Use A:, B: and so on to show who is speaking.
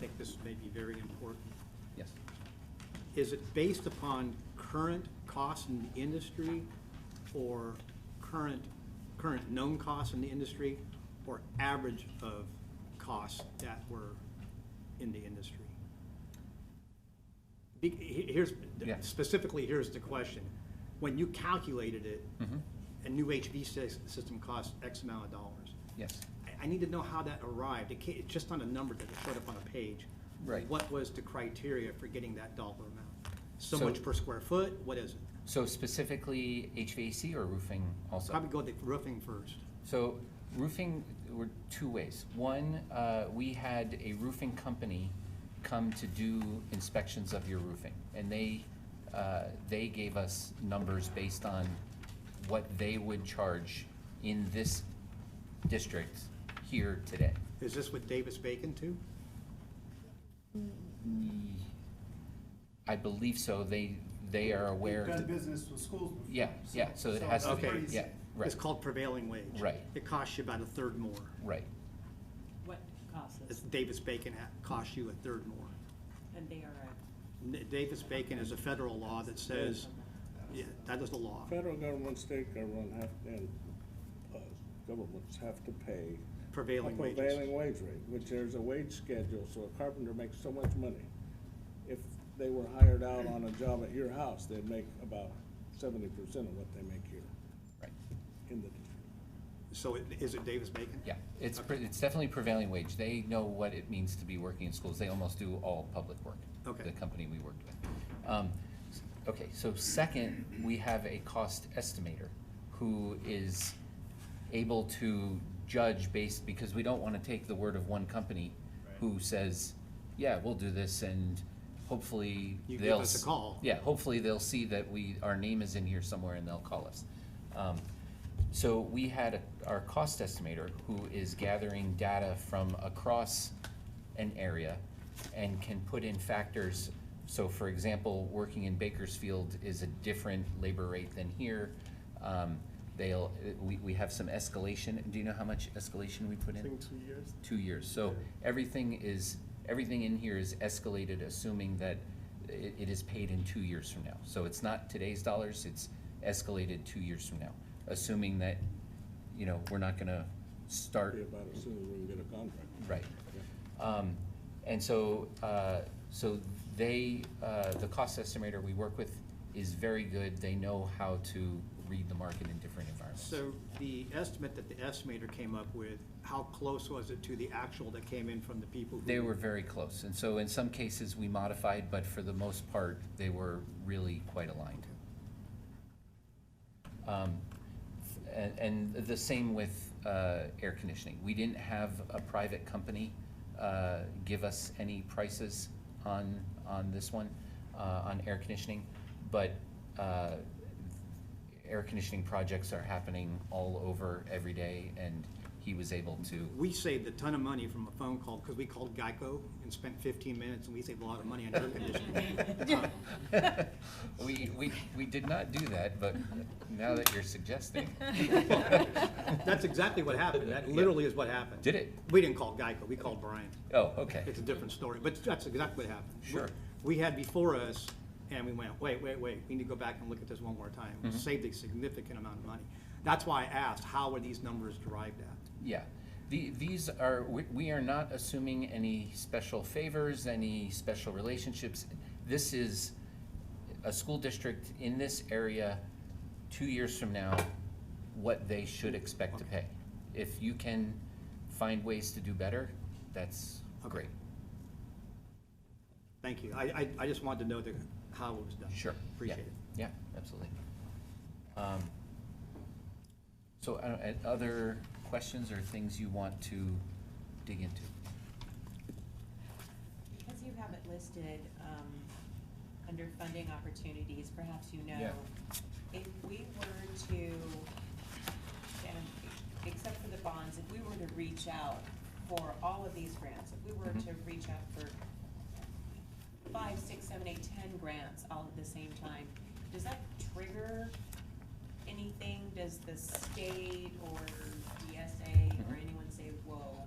A: think this may be very important.
B: Yes.
A: Is it based upon current costs in the industry or current, current known costs in the industry or average of costs that were in the industry? Be- he- Here's,
B: Yeah.
A: specifically, here's the question. When you calculated it,
B: Mhm.
A: a new HV sys- system costs X amount of dollars.
B: Yes.
A: I- I need to know how that arrived. It can't, it's just not a number that showed up on a page.
B: Right.
A: What was the criteria for getting that dollar amount? So
B: So-
A: much per square foot, what is it?
B: So specifically HVAC or roofing also?
A: Probably go with the roofing first.
B: So roofing were two ways. One, uh, we had a roofing company come to do inspections of your roofing, and they uh, they gave us numbers based on what they would charge in this district here today.
A: Is this with Davis Bacon too? Mm.
B: I believe so. They they are aware.
C: We've done
B: that-
C: business with schools before.
B: Yeah, yeah, so it has to
C: it's
B: be-
A: Okay.
C: pretty-
B: yeah, right.
A: It's called prevailing wage.
B: Right.
A: It costs you about a third more.
B: Right.
D: What costs
A: It's
D: us,
A: Davis Bacon ha- costs you a third more.
D: and they are
A: N- Davis Bacon is a federal law that says, yeah, that is the law.
E: Federal government, state government have, and uh, governments have to pay.
A: Prevailing
E: a
A: wages.
E: Prevailing wage rate, which there's a wage schedule, so a carpenter makes so much money. If they were hired out on a job at your house, they'd make about seventy percent of what they make here
B: Right.
E: in the district.
A: So it- is it Davis Bacon?
B: Yeah, it's, pre- it's definitely prevailing wage. They know what it means to be working in schools. They almost do all public work.
A: Okay.
B: The company we worked with. Um, s- Okay, so second, we have a cost estimator who is able to judge based, because we don't want to take the word of one company who says, yeah, we'll do this and hopefully
A: You give
B: they'll.
A: us a
B: s-
A: call.
B: Yeah, hopefully they'll see that we, our name is in here somewhere and they'll call us. Um, So we had a- our cost estimator who is gathering data from across an area and can put in factors. So for example, working in Bakersfield is a different labor rate than here. Um, They'll, we, we have some escalation. Do you know how much escalation we put in?
E: two years.
B: two years. So everything is, everything in here is escalated, assuming that it, it is paid in two years from now. So it's not today's dollars, it's escalated two years from now, assuming that, you know, we're not gonna
E: Be
B: start,
E: about as soon as we can get a contract.
B: right. Um, and so, uh, so they, uh, the cost estimator we work with is very good. They know how to read the market in different environments.
A: So the estimate that the estimator came up with, how close was it to the actual that came in from the people? who-
B: They were very close, and so in some cases, we modified, but for the most part, they were really quite aligned. Um, And, and the same with uh, air conditioning. We didn't have a private company uh, give us any prices on, on this one, uh, on air conditioning, but uh, air conditioning projects are happening all over every day, and he was able to,
A: We saved a ton of money from a phone call, because we called Geico and spent fifteen minutes, and we saved a lot of money on air conditioning. Uh,
B: We, we, we did not do that, but now that you're suggesting,
A: That's exactly what happened, that literally is what happened.
B: Did it?
A: We didn't call Geico, we called Brian.
B: oh, okay,
A: It's a different story, but that's exactly what happened.
B: Sure.
A: We had before us, and we went, wait, wait, wait, we need to go back and look at this one more time.
B: Mm-hmm.
A: We Saved a significant amount of money. That's why I asked, how were these numbers derived at?
B: yeah. The, these are, we, we are not assuming any special favors, any special relationships. This is a school district in this area, two years from now, what they should expect to pay. If you can find ways to do better, that's great,
A: Thank you. I, I, I just wanted to know the, how it was done.
B: sure. yeah,
A: Appreciate it.
B: Yeah, absolutely. Um, So, I don't- and other questions or things you want to dig into?
D: Because you have it listed, um, under funding opportunities, perhaps you know,
B: Yeah.
D: if we were to, and except for the bonds, if we were to reach out for all of these grants, if we were
B: Mhm.
D: to reach out for five, six, seven, eight, ten grants all at the same time, does that trigger anything? Does the state or DSA or
B: Mhm.
D: anyone say, whoa,